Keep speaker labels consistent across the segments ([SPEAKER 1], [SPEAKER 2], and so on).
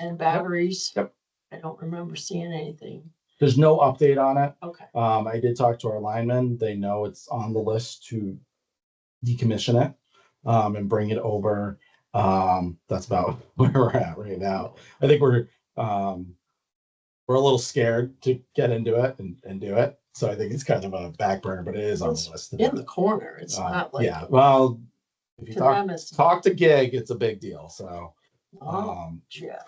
[SPEAKER 1] and batteries.
[SPEAKER 2] Yep.
[SPEAKER 1] I don't remember seeing anything.
[SPEAKER 2] There's no update on it.
[SPEAKER 1] Okay,
[SPEAKER 2] Um, I did talk to our linemen. They know it's on the list to decommission it um, and bring it over. Um, that's about where we're at right now. I think we're um, we're a little scared to get into it and, and do it. So I think it's kind of a back burner, but it is on the list. to do.
[SPEAKER 1] in the corner, it's
[SPEAKER 2] Uh,
[SPEAKER 1] not like.
[SPEAKER 2] yeah. Well, if you
[SPEAKER 1] To
[SPEAKER 2] talk
[SPEAKER 1] them, it's.
[SPEAKER 2] talk to gig, it's a big deal. So
[SPEAKER 1] Oh,
[SPEAKER 2] um,
[SPEAKER 1] yeah.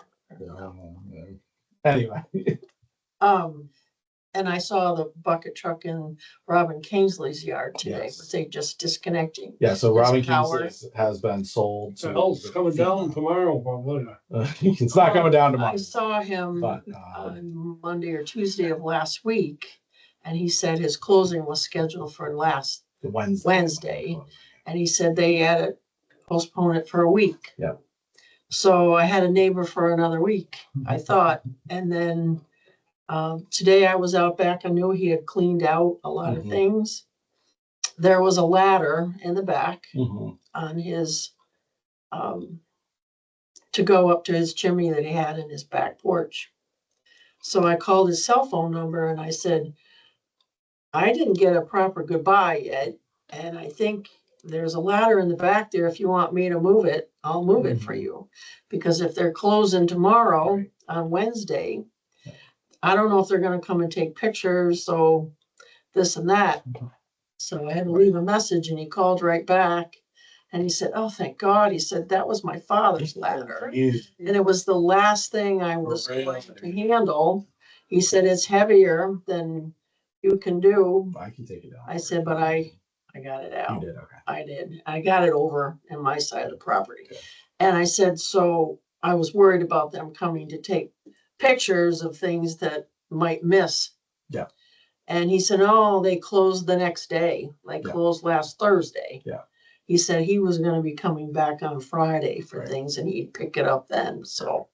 [SPEAKER 2] um, anyway,
[SPEAKER 1] Um, and I saw the bucket truck in Robin Kingsley's yard today,
[SPEAKER 2] Yes.
[SPEAKER 1] but they just disconnecting.
[SPEAKER 2] yeah. So
[SPEAKER 1] It's
[SPEAKER 2] Robin
[SPEAKER 1] power.
[SPEAKER 2] Kingsley has- has been sold to.
[SPEAKER 3] Hell's coming down tomorrow, probably.
[SPEAKER 2] Uh, it's not coming down tomorrow,
[SPEAKER 1] I saw him
[SPEAKER 2] but uh,
[SPEAKER 1] on Monday or Tuesday of last week, and he said his closing was scheduled for last,
[SPEAKER 2] Wednesday.
[SPEAKER 1] Wednesday. and he said they had to postpone it for a week.
[SPEAKER 2] Yeah.
[SPEAKER 1] So I had a neighbor for another week, I thought, and then, um, today I was out back, I knew he had cleaned out a lot of
[SPEAKER 2] Mhm.
[SPEAKER 1] things. There was a ladder in the back,
[SPEAKER 2] Mhm.
[SPEAKER 1] on his, um, to go up to his chimney that he had in his back porch. So I called his cell phone number and I said, I didn't get a proper goodbye yet, and I think there's a ladder in the back there. If you want me to move it, I'll move it for
[SPEAKER 2] Mhm.
[SPEAKER 1] you. Because if they're closing tomorrow
[SPEAKER 2] Right.
[SPEAKER 1] on Wednesday, I don't know if they're gonna come and take pictures, so this and that. So I had to leave a message and he called right back. And he said, oh, thank God. He said, that was my father's ladder.
[SPEAKER 2] He's-
[SPEAKER 1] And it was the last thing I was
[SPEAKER 3] Right
[SPEAKER 1] going
[SPEAKER 3] on.
[SPEAKER 1] to handle. He said, it's heavier than you can do.
[SPEAKER 2] I can take it down.
[SPEAKER 1] I said, but I- I got it
[SPEAKER 2] You
[SPEAKER 1] out.
[SPEAKER 2] did, okay.
[SPEAKER 1] I did. I got it over in my side of the property.
[SPEAKER 2] Okay.
[SPEAKER 1] And I said, so I was worried about them coming to take pictures of things that might miss.
[SPEAKER 2] Yeah.
[SPEAKER 1] And he said, oh, they closed the next day. They
[SPEAKER 2] Yeah.
[SPEAKER 1] closed last Thursday.
[SPEAKER 2] Yeah.
[SPEAKER 1] He said he was gonna be coming back on Friday for
[SPEAKER 2] Right.
[SPEAKER 1] things and he'd pick it up then, so.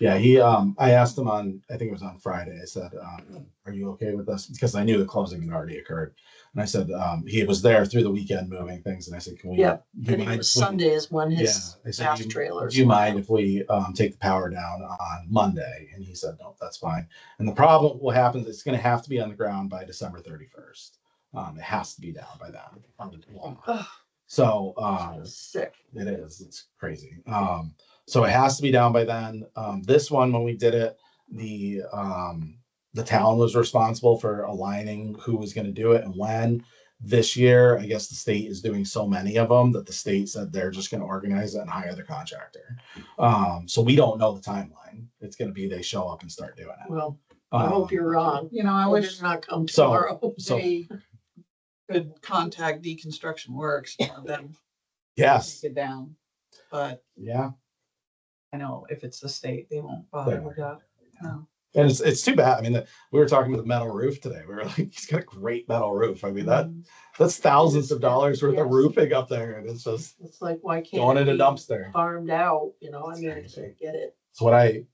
[SPEAKER 2] Yeah, he, um, I asked him on, I think it was on Friday, I said, um, are you okay with this? Because I knew the closing had already occurred. And I said, um, he was there through the weekend moving things and I said, can we?
[SPEAKER 1] Yeah,
[SPEAKER 2] do you
[SPEAKER 1] And it
[SPEAKER 2] mind
[SPEAKER 1] was
[SPEAKER 2] if we-
[SPEAKER 1] Sunday is when
[SPEAKER 2] Yeah,
[SPEAKER 1] his
[SPEAKER 2] I said,
[SPEAKER 1] bath
[SPEAKER 2] "You-
[SPEAKER 1] trailers.
[SPEAKER 2] Do you mind if we um take the power down on Monday? And he said, no, that's fine. And the problem will happen, is it's gonna have to be on the ground by December thirty-first. Um, it has to be down by then.
[SPEAKER 1] Ugh,
[SPEAKER 2] So,
[SPEAKER 1] I
[SPEAKER 2] um,
[SPEAKER 1] was Sick.
[SPEAKER 2] it is, it's crazy. Um, so it has to be down by then. Um, this one, when we did it, the, um, the town was responsible for aligning who was gonna do it and when. This year, I guess the state is doing so many of them that the state said they're just gonna organize it and hire the contractor. Um, so we don't know the timeline. It's gonna be they show up and start doing it.
[SPEAKER 1] Well, I hope
[SPEAKER 2] Um,
[SPEAKER 1] you're wrong.
[SPEAKER 4] You know, I
[SPEAKER 1] I
[SPEAKER 4] wish
[SPEAKER 1] did not come
[SPEAKER 2] So-
[SPEAKER 1] tomorrow.
[SPEAKER 2] So,
[SPEAKER 4] they could contact Deconstruction Works, and have them
[SPEAKER 2] yes,
[SPEAKER 4] take it down. But
[SPEAKER 2] yeah,
[SPEAKER 4] I know if it's the state, they won't bother with that. No.
[SPEAKER 2] and it's, it's too bad. I mean, the- we were talking about the metal roof today. We were like, he's got a great metal roof. I mean, that, That's thousands of dollars worth
[SPEAKER 1] Yes.
[SPEAKER 2] of roofing up there and it's just
[SPEAKER 1] It's like, why can't?
[SPEAKER 2] going
[SPEAKER 1] it
[SPEAKER 2] in a
[SPEAKER 1] be
[SPEAKER 2] dumpster.
[SPEAKER 1] Farmed out, you know, I
[SPEAKER 2] It's
[SPEAKER 1] mean, I
[SPEAKER 2] crazy.
[SPEAKER 1] get it.
[SPEAKER 2] It's what I,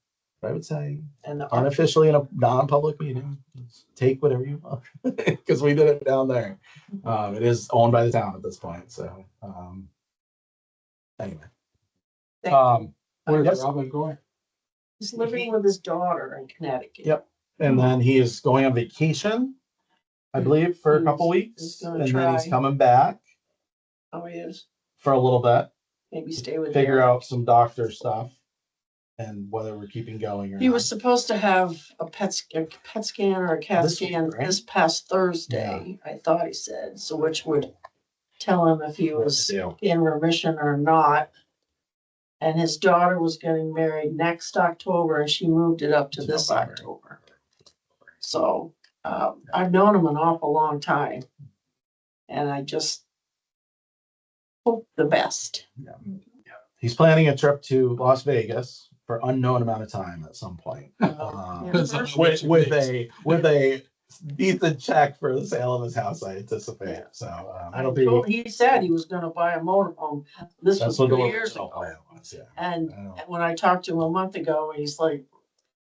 [SPEAKER 2] what I would say
[SPEAKER 1] And the
[SPEAKER 2] unofficially in a non-public meeting, take whatever you want. Cause we did it down there.
[SPEAKER 1] Mm-hmm.
[SPEAKER 2] Um, it is owned by the town at this point, so, um. Anyway.
[SPEAKER 4] Thank you.
[SPEAKER 2] Um,
[SPEAKER 3] Where's
[SPEAKER 2] Yes.
[SPEAKER 3] Robin going?
[SPEAKER 1] He's living with his daughter in Connecticut.
[SPEAKER 2] Yep. and then he is going on vacation, I believe, for a
[SPEAKER 1] He's-
[SPEAKER 2] couple
[SPEAKER 1] he's
[SPEAKER 2] weeks.
[SPEAKER 1] gonna
[SPEAKER 2] And then he's
[SPEAKER 1] try.
[SPEAKER 2] coming back
[SPEAKER 1] Oh, he is.
[SPEAKER 2] for a little bit,
[SPEAKER 1] Maybe stay with.
[SPEAKER 2] figure
[SPEAKER 1] Derek.
[SPEAKER 2] out some doctor stuff. And whether we're keeping going or not.
[SPEAKER 1] He was supposed to have a PET, sc- a PET scan or a CAT
[SPEAKER 2] This week,
[SPEAKER 1] scan
[SPEAKER 2] right?
[SPEAKER 1] this past Thursday, I thought he said, so which would tell him if he
[SPEAKER 2] What to
[SPEAKER 1] was
[SPEAKER 2] do.
[SPEAKER 1] in remission or not. And his daughter was getting married next October and she moved it up to
[SPEAKER 2] To
[SPEAKER 1] this
[SPEAKER 2] November.
[SPEAKER 1] October. So, um, I've known him an awful long time. And I just hope the best.
[SPEAKER 2] He's planning a trip to Las Vegas for unknown amount of time at some point. Um,
[SPEAKER 1] Oh, Yeah.
[SPEAKER 2] so With, with a, with a decent check for the sale of his house, I anticipate,
[SPEAKER 1] Yeah.
[SPEAKER 2] so, um,
[SPEAKER 1] I
[SPEAKER 2] it'll be.
[SPEAKER 1] told- He said he was gonna buy a motorhome. This was
[SPEAKER 2] That's what the.
[SPEAKER 1] two years ago.
[SPEAKER 2] plan was, yeah.
[SPEAKER 1] And
[SPEAKER 2] I know.
[SPEAKER 1] And when I talked to him a month ago, he's like,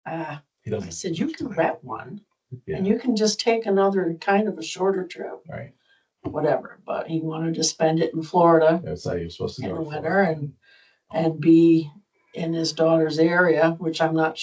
[SPEAKER 1] ah,
[SPEAKER 2] He
[SPEAKER 1] I
[SPEAKER 2] doesn't.
[SPEAKER 1] said, you can rent one
[SPEAKER 2] Yeah,
[SPEAKER 1] and you can just take another kind of a shorter trip,
[SPEAKER 2] right.
[SPEAKER 1] whatever. But he wanted to spend it in Florida
[SPEAKER 2] That's how you're supposed to
[SPEAKER 1] in
[SPEAKER 2] go.
[SPEAKER 1] the
[SPEAKER 2] for it.
[SPEAKER 1] winter and, and be in his daughter's area, which I'm not